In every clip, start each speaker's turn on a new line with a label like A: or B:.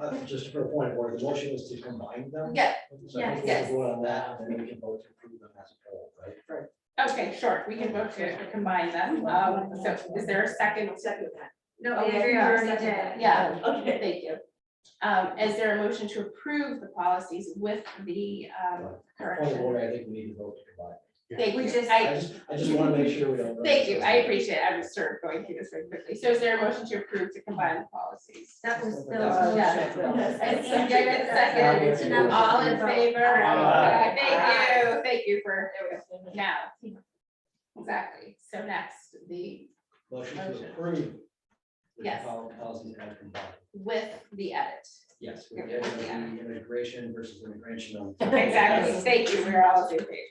A: uh, just for a point of order, the motion was to combine them.
B: Yeah,
A: So I think we
B: Yes.
A: can vote on that, and then we can vote to approve them as a whole, right?
C: Okay, sure, we can vote to combine them. Um, so is there a second? Oh,
D: Second that.
B: no,
C: Okay,
B: Andrea
D: I'll
B: already
D: second
B: did.
D: that.
C: Yeah,
D: Okay.
C: thank you. Um, is there a motion to approve the policies with the, um,
A: Point of
C: correction?
A: order, I think we need to vote to combine.
C: Thank
B: We
C: you.
B: just-
A: I
C: I,
A: just, I just want to make sure we don't.
C: thank you. I appreciate it. I'm sort of going through this very quickly. So is there a motion to approve to combine the policies?
B: That was the.
A: That
C: was-
A: Yes.
B: And
C: And
B: Andrea
C: Andrea
B: did second.
C: seconded.
A: Second.
C: All in favor?
A: Aye.
C: Okay, Thank you, thank you for now. Exactly. So next, the
A: Motion
C: Motion.
A: to approve. the
C: Yes.
A: pol- Policies as combined.
C: with the edit.
A: Yes, we did with the immigration versus immigration. on-
C: Exactly, thank you, we're all on the same page.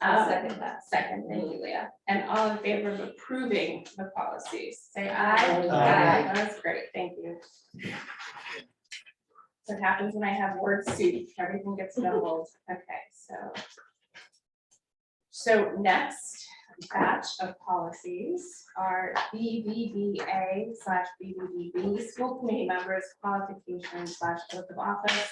B: I'll
C: Um,
B: second that.
C: Second, thank you, Leah. And all in favor of approving the policies, say aye.
B: Aye.
A: Aye.
C: That's great, thank you. So it happens when I have word soup, everything gets doubled. Okay, so. So next batch of policies are BBBA slash BBBB, school committee members qualifications slash oath of office.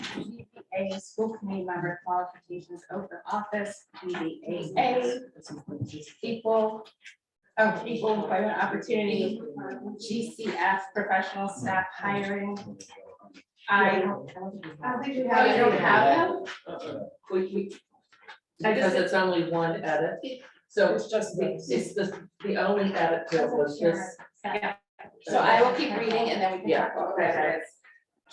C: BBA, school committee member qualifications, oath of office, BBAA, equal, oh, equal employment opportunity, GCF, professional staff hiring. I,
B: I don't think you
C: oh,
B: have.
C: you don't have them? I just-
E: Because it's only one edit, so it's just, the- it's the, the only edit to it was this.
C: Yeah. So I will keep reading and then we can
E: Yeah.
C: talk about where it is.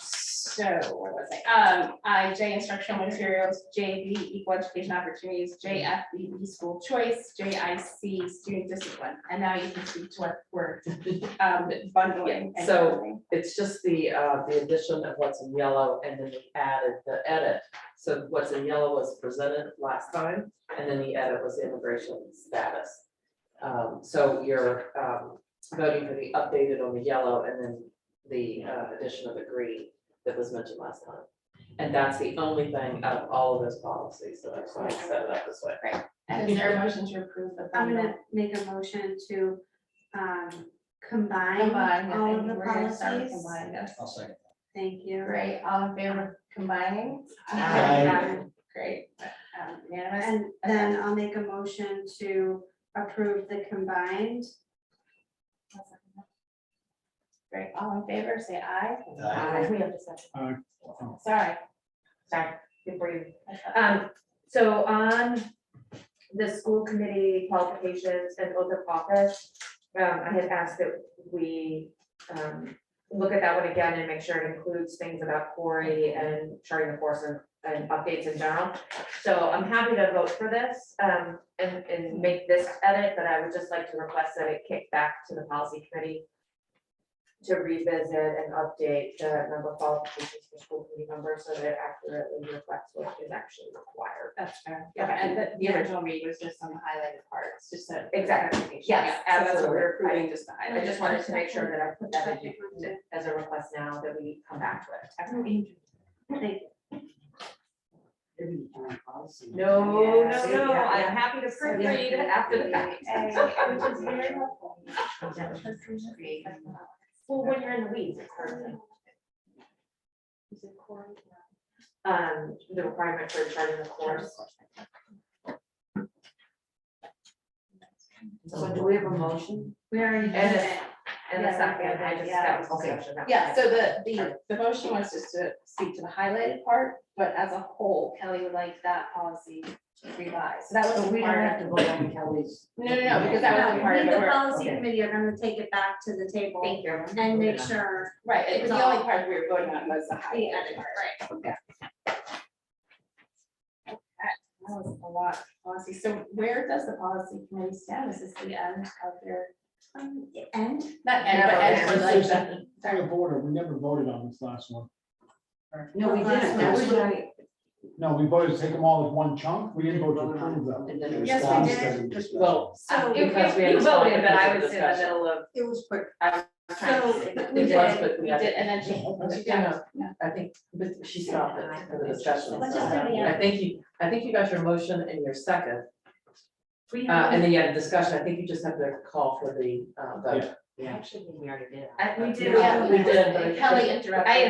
C: So, where was I? Um, I, J instructional materials, JV equal education opportunities, JFBB E school choice, JIC student discipline. And now you can speak to what we're, um, bundling. and
E: So-
C: bundling.
E: It's just the, uh, the addition of what's in yellow and then we added the edit. So what's in yellow was presented last time and then the edit was immigration status. Um, so you're, um, voting for the updated on the yellow and then the, uh, addition of the green that was mentioned last time. And that's the only thing out of all of those policies, so that's why I set it up this way.
C: And is there a motion to approve the
F: I'm
C: bundle?
F: gonna make a motion to um combine
C: Combine, I
F: all of
C: think
F: the
C: we're gonna start with
F: policies.
C: combine, yes.
A: I'll second.
F: Thank you.
C: Great, all in favor of combining?
A: Aye.
C: Great, um, unanimous,
F: And then I'll make a motion to approve the combined.
C: great, all in favor, say aye.
A: Aye.
D: We have to second.
C: Sorry,
D: Sorry, before you. Um, so on the school committee qualifications and oath of office, um, I had asked that we, um, look at that one again and make sure it includes things about Corey and charting the course and, and updates in general. So I'm happy to vote for this, um, and, and make this edit, but I would just like to request that it kick back to the policy committee to revisit and update the number of qualifications for school committee members so that it accurately reflects what is actually required.
C: that's fair, yeah, and the, the original read was just some highlighted parts, just a.
D: Exactly.
C: clarification.
D: Yes,
C: Yeah, so that's what
D: absolutely.
C: We're approving just the
D: I
C: highlight.
D: just wanted to make sure that I put that in as a request now that we come back to it.
F: Thank you.
D: No, no,
C: Yeah.
D: no, I'm happy to proofread after the fact.
C: Which is very helpful.
D: Well, when you're in the weeds, it's hard to. Um, the requirement for charting the course.
G: So do we have a motion?
F: We already did
D: And
F: it.
D: And the
F: Yeah, we
D: second, I
F: did,
D: just,
F: yeah.
D: that was discussion. that was
C: Yeah, so the,
D: discussion.
C: the, the motion was just to speak to the highlighted part, but as a whole, Kelly would like that policy revised, so that was
G: So we
C: a
G: don't have
C: part of.
G: to vote on Kelly's.
C: No, no, no, because that was a part of
F: We,
C: the
F: the
C: work.
F: policy
G: Okay.
F: committee are gonna take it back to the table
D: Thank you.
F: and make sure.
C: Right, it was the
F: It's all-
C: only part we were voting on was the highlight.
F: edit
C: right. Okay. Okay, That was a lot of policy. So where does the policy committee stand? Is this the end of your,
F: um,
C: not
F: And
C: end, but
D: Never
C: end for
D: ends.
C: like the.
H: Point of order, we never voted on this last one.
G: No, we didn't. That's what I-
H: No, we voted to take them all as one chunk. We didn't vote to approve them.
G: And then-
F: Yes, we
A: Response
F: did.
A: doesn't discuss.
E: Well,
F: so,
E: Because
D: If- if
E: we had
D: Oh, you
E: a
D: voted,
E: solid
D: but I
E: budget
D: was in the
E: discussion.
D: middle of.
G: It was quick.
D: trying to-
F: So,
D: it
C: We
D: was
C: did,
E: was, but
C: we
E: we had-
C: did, and then she, she did.
E: Yeah.
C: yeah.
E: I think, but she stopped it for the discussion.
F: Let's just do the
E: I think you, I think you got your motion and your second,
F: we
E: uh, and
F: have,
E: then you had a discussion, I think you just have to call for the, uh, vote.
G: Actually, we already did.
D: I- we did.
C: Yeah, we
E: We did,
C: did,
E: but-
C: Kelly interrupted.
D: I